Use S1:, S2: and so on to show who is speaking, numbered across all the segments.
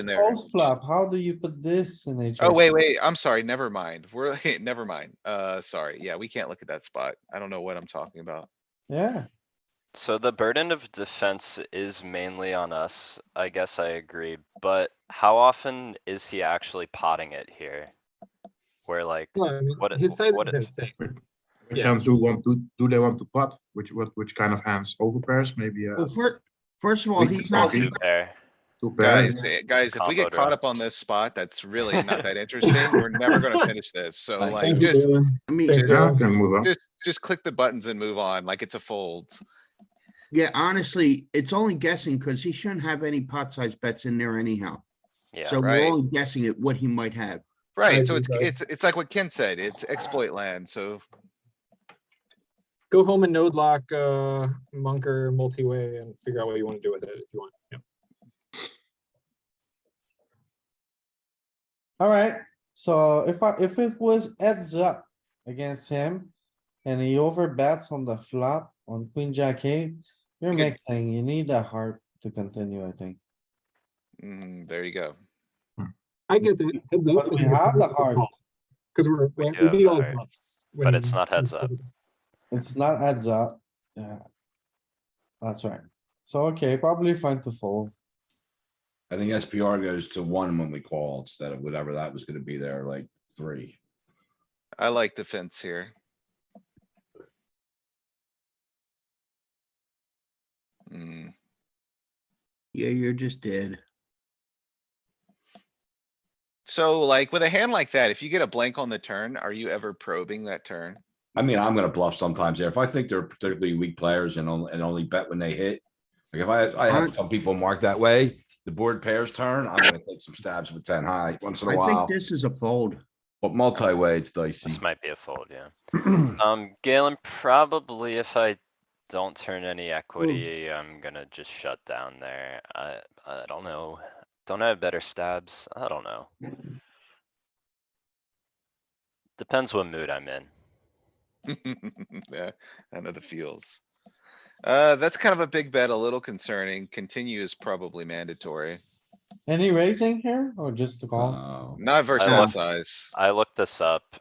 S1: in there.
S2: Fold flop, how do you put this in a?
S1: Oh, wait, wait, I'm sorry, never mind. We're, never mind. Uh, sorry, yeah, we can't look at that spot. I don't know what I'm talking about.
S2: Yeah,
S3: So the burden of defense is mainly on us, I guess I agree, but how often is he actually potting it here? Where like,
S4: No, I mean,
S3: What it-
S4: his size
S3: what
S4: is
S3: it-
S4: insane.
S5: Which
S4: Yeah.
S5: hands do want to, do they want to pot? Which, what, which kind of hands? Over pairs, maybe, uh,
S6: Well, first, first of all,
S5: We
S6: he's
S5: can
S6: not,
S5: argue.
S3: two pair,
S5: two
S1: Guys,
S5: pairs?
S1: eh, guys, if we get
S3: Combo
S1: caught
S3: draw.
S1: up on this spot, that's really not that interesting. We're never gonna finish this, so
S6: Like,
S1: like,
S4: Thank you,
S1: just,
S4: Dylan.
S6: I mean,
S4: There's
S5: Yeah, can move on.
S1: just, just click the buttons and move on, like it's a fold.
S6: yeah, honestly, it's only guessing because he shouldn't have any pot size bets in there anyhow.
S3: yeah,
S6: So
S1: right.
S6: we're only guessing at what he might have.
S1: Right, so
S4: agree,
S1: it's,
S4: guys.
S1: it's, it's like what Ken said, it's exploit land, so
S4: Go home and node lock, uh, Munker multi-way and figure out what you want to do with it if you want. Yeah.
S2: alright, so if I, if it was heads up against him. And he overbets on the flop on queen jack eight, you're
S1: Okay.
S2: mixing, you need a heart to continue, I think.
S1: mm, there you go.
S4: I get that. Heads up.
S2: But we have the heart.
S4: Because we're, we
S3: do
S4: we
S3: have
S4: beat
S3: the
S4: all his
S3: heart,
S4: bluffs.
S3: but
S4: when-
S3: it's not heads up.
S2: It's not heads up, yeah. That's right. So, okay, probably fine to fold.
S7: I think SPR goes to one when we call instead of whatever that was gonna be there, like three.
S1: I like defense here. Mm,
S6: Yeah, you're just dead.
S1: so like with a hand like that, if you get a blank on the turn, are you ever probing that turn?
S7: I mean, I'm gonna bluff sometimes there. If I think they're particularly weak players and only, and only bet when they hit. Like if I, I have
S6: Aren't-
S7: some people marked that way, the board pairs turn, I'm gonna take some stabs with ten high once in a
S6: I think
S7: while,
S6: this is a fold.
S7: but multi-way it's dicey.
S3: This might be a fold, yeah. Um, Galen, probably if I don't turn any equity, I'm gonna just shut down there. I, I don't know. Don't I have better stabs? I don't know.
S6: Mm-hmm.
S3: Depends what mood I'm in.
S1: Yeah, I know the feels. Uh, that's kind of a big bet, a little concerning. Continue is probably mandatory,
S2: Any raising here or just the
S3: Uh,
S2: call?
S7: Oh,
S1: not versus
S3: love-
S1: that size.
S3: I looked this up.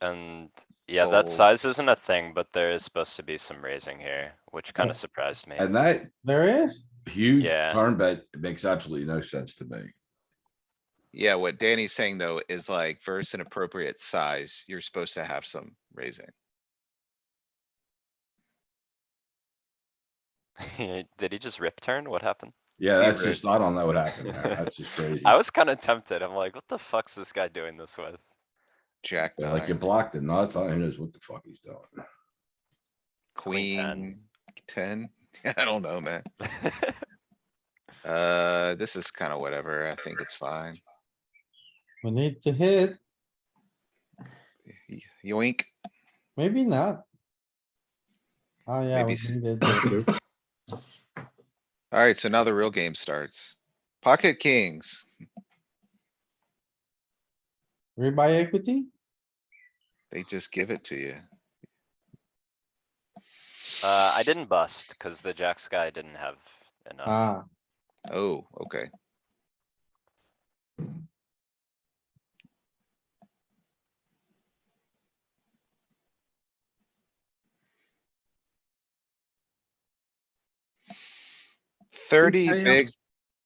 S3: And yeah, that
S1: Fold.
S3: size isn't a thing, but there is supposed to be some raising here, which kinda surprised me.
S7: And that
S2: There is?
S7: huge
S3: Yeah.
S7: turn bet makes absolutely no sense to me.
S1: Yeah, what Danny's saying though is like versus an appropriate size, you're supposed to have some raising.
S3: Did he just rip turn? What happened?
S7: Yeah,
S1: Be
S7: that's
S1: rude.
S7: just, I don't know what happened there. That's just crazy.
S3: I was kinda tempted. I'm like, what the fuck's this guy doing this with?
S1: Jack
S7: Yeah, Like you
S1: nine,
S7: blocked the nuts. I don't know what the fuck he's doing.
S3: queen ten.
S1: queen, ten. I don't know, man. Uh, this is kinda whatever. I think it's fine.
S2: We need to hit,
S1: Y- Yoink.
S2: maybe not. Oh, yeah.
S1: Maybe
S2: we
S1: s-
S2: needed to-
S1: Alright, so now the real game starts. Pocket kings.
S2: Rebuy equity?
S1: They just give it to you.
S3: Uh, I didn't bust because the jack sky didn't have enough.
S2: Ah,
S1: Oh, okay. Thirty
S6: Anybody
S1: big
S6: else?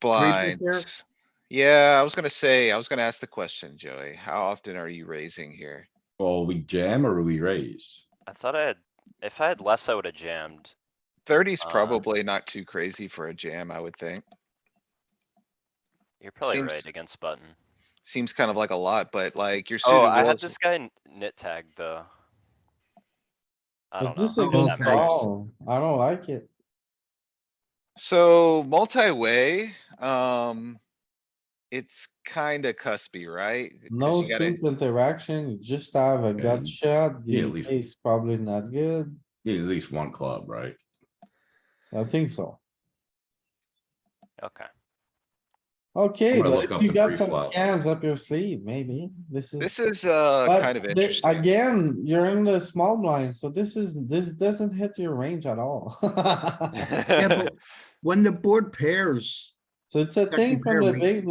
S6: there?
S1: blinds. Yeah, I was gonna say, I was gonna ask the question, Joey. How often are you raising here?
S7: Well, we jam or we raise?
S3: I thought I had, if I had less, I would have jammed.
S1: Thirty's
S3: Uh,
S1: probably not too crazy for a jam, I would think.
S3: You're probably
S1: Seems-
S3: right against button.
S1: Seems kind of like a lot, but like you're suited
S3: Oh, I had
S1: well.
S3: this guy n- nit tagged though. I
S2: is
S3: don't know.
S2: this a
S3: if
S2: good
S3: that matters.
S2: call? I don't like it.
S1: So multi-way, um. It's kinda cuspy, right? 'Cause
S2: No
S1: you gotta-
S2: suit interaction, you just have a gut
S7: Yeah,
S2: shot,
S7: yeah,
S2: the
S7: leave.
S2: ace probably not good,
S7: You need at least one club, right?
S2: I think so.
S3: Okay,
S2: Okay,
S7: I'm gonna
S2: but
S7: look
S2: if
S7: up
S2: you
S7: the
S2: got
S7: free
S2: some
S7: flop.
S2: scams up your sleeve, maybe, this
S1: This
S2: is.
S1: is, uh,
S2: but
S1: kind of
S2: they-
S1: interesting.
S2: Again, you're in the small blind, so this is, this doesn't hit your range at all.
S6: Yeah, but when the board pairs,
S2: So it's a
S6: Check
S2: thing
S6: compare
S2: from the
S6: range.
S2: big blind